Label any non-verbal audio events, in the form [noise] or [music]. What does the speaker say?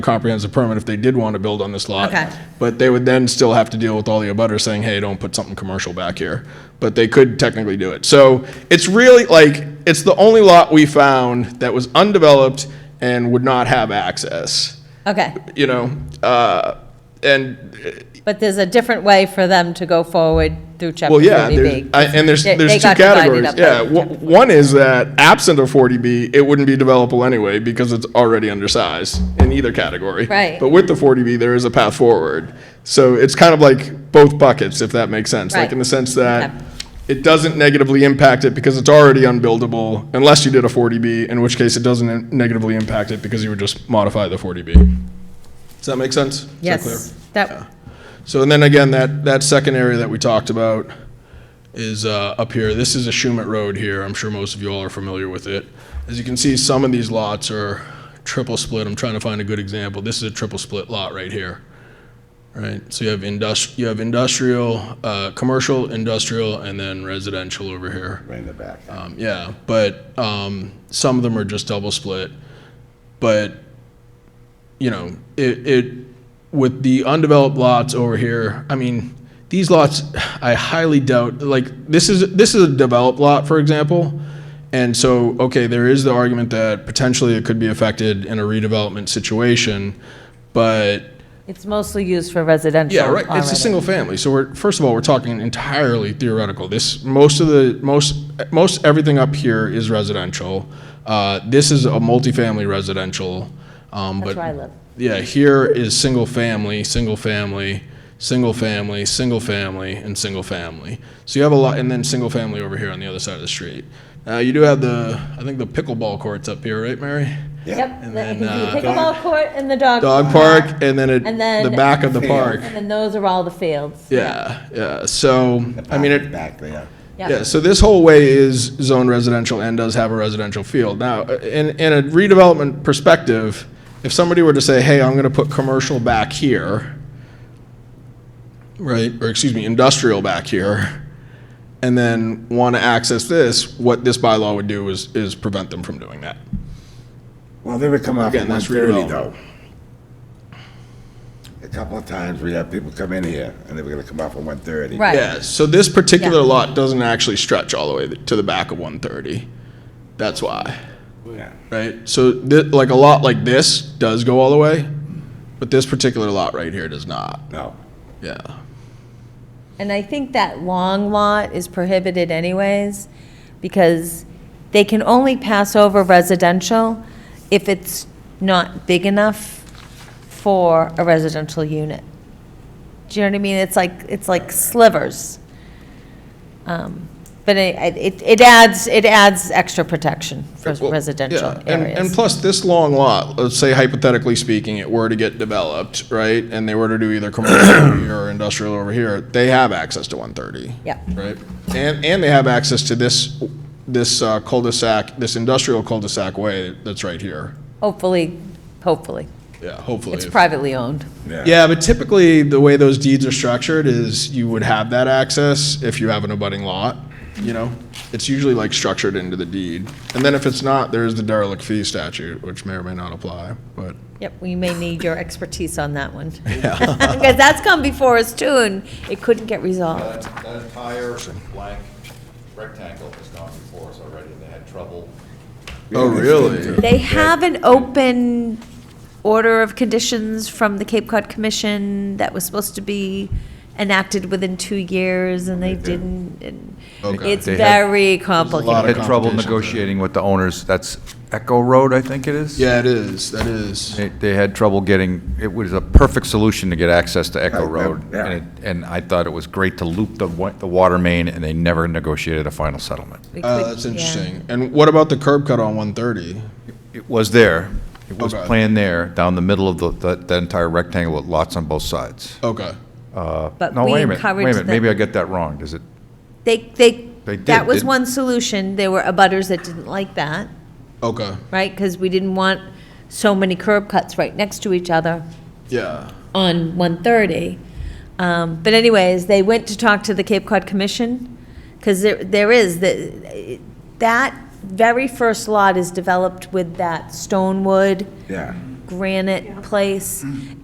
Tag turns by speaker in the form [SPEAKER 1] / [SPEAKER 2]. [SPEAKER 1] comprehensive permit if they did want to build on this lot.
[SPEAKER 2] Okay.
[SPEAKER 1] But they would then still have to deal with all the abutters saying, hey, don't put something commercial back here. But they could technically do it. So it's really like, it's the only lot we found that was undeveloped and would not have access,
[SPEAKER 2] Okay,
[SPEAKER 1] you know? Uh, And
[SPEAKER 2] but there's a different way for them to go forward through chapter
[SPEAKER 1] Well, yeah, there's,
[SPEAKER 2] 40B.
[SPEAKER 1] I- and there's,
[SPEAKER 2] They-
[SPEAKER 1] there's
[SPEAKER 2] they
[SPEAKER 1] two
[SPEAKER 2] got divided
[SPEAKER 1] categories.
[SPEAKER 2] up by
[SPEAKER 1] Yeah, wh- one is that absent of 40B, it wouldn't be developable anyway because it's already undersized in either category.
[SPEAKER 2] Right.
[SPEAKER 1] But with the 40B, there is a path forward. So it's kind of like both buckets, if that makes sense. Like
[SPEAKER 2] Right.
[SPEAKER 1] in the sense
[SPEAKER 2] Okay.
[SPEAKER 1] that it doesn't negatively impact it because it's already unbuildable unless you did a 40B, in which case it doesn't negatively impact it because you would just modify the 40B. Does that make sense? Is that clear?
[SPEAKER 2] Yes, that,
[SPEAKER 1] So, and then again, that, that second area that we talked about is uh, up here. This is a Schumet Road here. I'm sure most of you all are familiar with it. As you can see, some of these lots are triple split. I'm trying to find a good example. This is a triple split lot right here. Right, so you have industri, you have industrial, uh, commercial, industrial, and then residential over here.
[SPEAKER 3] Right in the back.
[SPEAKER 1] Um, yeah, but um, some of them are just double split. But you know, it, it with the undeveloped lots over here. I mean, these lots, I highly doubt. Like this is this is a developed lot, for example. And so, okay, there is the argument that potentially it could be affected in a redevelopment situation, but
[SPEAKER 2] it's mostly used for residential
[SPEAKER 1] yeah, right. It's a
[SPEAKER 2] already.
[SPEAKER 1] single family. So we're first of all, we're talking entirely theoretical. This most of the most most everything up here is residential. Uh, this is a multifamily residential. Um,
[SPEAKER 2] That's
[SPEAKER 1] but
[SPEAKER 2] where I live.
[SPEAKER 1] yeah, here is single family, single family, single family, single family, and single family. So you have a lot, and then single family over here on the other side of the street. Uh, you do have the I think the pickleball courts up here, right, Mary?
[SPEAKER 2] Yep,
[SPEAKER 1] And
[SPEAKER 2] the- it
[SPEAKER 1] then,
[SPEAKER 2] can be
[SPEAKER 1] uh,
[SPEAKER 2] pickleball court and the dog.
[SPEAKER 1] Dog park, and then, it,
[SPEAKER 2] And then-
[SPEAKER 1] the back of the
[SPEAKER 3] Field.
[SPEAKER 1] park.
[SPEAKER 2] And then those are all the fields.
[SPEAKER 1] Yeah, yeah. So I mean, it,
[SPEAKER 3] Back there.
[SPEAKER 2] Yep.
[SPEAKER 1] Yeah, so this whole way is zoned residential and does have a residential field. Now, in, in a redevelopment perspective, if somebody were to say, hey, I'm gonna put commercial back here, right, or excuse me, industrial back here, and then wanna access this, what this bylaw would do is, is prevent them from doing that.
[SPEAKER 3] Well, they would come off at
[SPEAKER 1] Again,
[SPEAKER 3] one
[SPEAKER 1] that's
[SPEAKER 3] thirty
[SPEAKER 1] redevelopment.
[SPEAKER 3] though. A couple of times we had people come in here and they were gonna come off at one thirty.
[SPEAKER 2] Right.
[SPEAKER 1] Yeah, so this particular
[SPEAKER 2] Yeah.
[SPEAKER 1] lot doesn't actually stretch all the way to the back of one thirty. That's why. right? So, thi- like a lot like this does go all the way, but this particular lot right here does not.
[SPEAKER 3] No,
[SPEAKER 1] Yeah.
[SPEAKER 2] And I think that long lot is prohibited anyways, because they can only pass over residential if it's not big enough for a residential unit. Do you know what I mean? It's like, it's like slivers. Um, But it, it- it adds, it adds extra protection for
[SPEAKER 1] Well,
[SPEAKER 2] residential
[SPEAKER 1] yeah, and- And
[SPEAKER 2] areas.
[SPEAKER 1] plus, this long lot, let's say hypothetically speaking, it were to get developed, right? And they were to do either commercial
[SPEAKER 2] [coughs]
[SPEAKER 1] over here or industrial over here, they have access to 130.
[SPEAKER 2] Yep.
[SPEAKER 1] Right? And, and they have access to this, this uh, cul-de-sac, this industrial cul-de-sac way that's right here.
[SPEAKER 2] Hopefully, hopefully.
[SPEAKER 1] Yeah, hopefully.
[SPEAKER 2] It's
[SPEAKER 1] if-
[SPEAKER 2] privately owned.
[SPEAKER 3] yeah.
[SPEAKER 1] Yeah, but typically, the way those deeds are structured is you would have that access if you have an abutting lot, you know? It's usually like structured into the deed. And then if it's not, there's the derelict fee statute, which may or may not apply, but.
[SPEAKER 2] Yep, we may need your expertise on that
[SPEAKER 1] [laughs]
[SPEAKER 2] one. [laughs] Because that's come before us too, and it couldn't get resolved.
[SPEAKER 4] That that entire blank rectangle has gone before us already, and they had trouble.
[SPEAKER 1] Oh, really?
[SPEAKER 2] They have an open order of conditions from the Cape Cod Commission that was supposed to be enacted within two years, and they didn't. and
[SPEAKER 1] Okay.
[SPEAKER 2] It's
[SPEAKER 4] They had-
[SPEAKER 2] very
[SPEAKER 1] lot
[SPEAKER 2] complicated.
[SPEAKER 1] of
[SPEAKER 4] Had trouble
[SPEAKER 1] complications there.
[SPEAKER 4] negotiating with the owners, that's Echo Road, I think it is?
[SPEAKER 1] Yeah, it is, that is.
[SPEAKER 4] They- They had trouble getting, it was a perfect solution to get access to Echo
[SPEAKER 3] Right, yeah,
[SPEAKER 4] Road.
[SPEAKER 3] yeah.
[SPEAKER 4] And it- and I thought it was great to loop the wa- the water main, and they never negotiated a final settlement.
[SPEAKER 2] We
[SPEAKER 1] Uh,
[SPEAKER 2] could-
[SPEAKER 1] that's
[SPEAKER 2] yeah.
[SPEAKER 1] interesting. And what about the curb cut on 130?
[SPEAKER 4] It was there, it was
[SPEAKER 1] Okay.
[SPEAKER 4] planned there, down the middle of the- the that entire rectangle with lots on both sides.
[SPEAKER 1] Okay.
[SPEAKER 2] But
[SPEAKER 4] No,
[SPEAKER 2] Uh, we
[SPEAKER 4] wait a minute, wait a
[SPEAKER 2] encouraged
[SPEAKER 4] minute, maybe I
[SPEAKER 2] them.
[SPEAKER 4] get that wrong, does it?
[SPEAKER 2] They, they,
[SPEAKER 4] They did,
[SPEAKER 2] that was
[SPEAKER 4] didn't-
[SPEAKER 2] one solution. There were abutters that didn't like that.
[SPEAKER 1] Okay,
[SPEAKER 2] right? Because we didn't want so many curb cuts right next to each other
[SPEAKER 1] yeah.
[SPEAKER 2] on 130. Um, But anyways, they went to talk to the Cape Cod Commission, because there, there is, the- that very first lot is developed with that stone wood
[SPEAKER 3] Yeah,
[SPEAKER 2] granite place.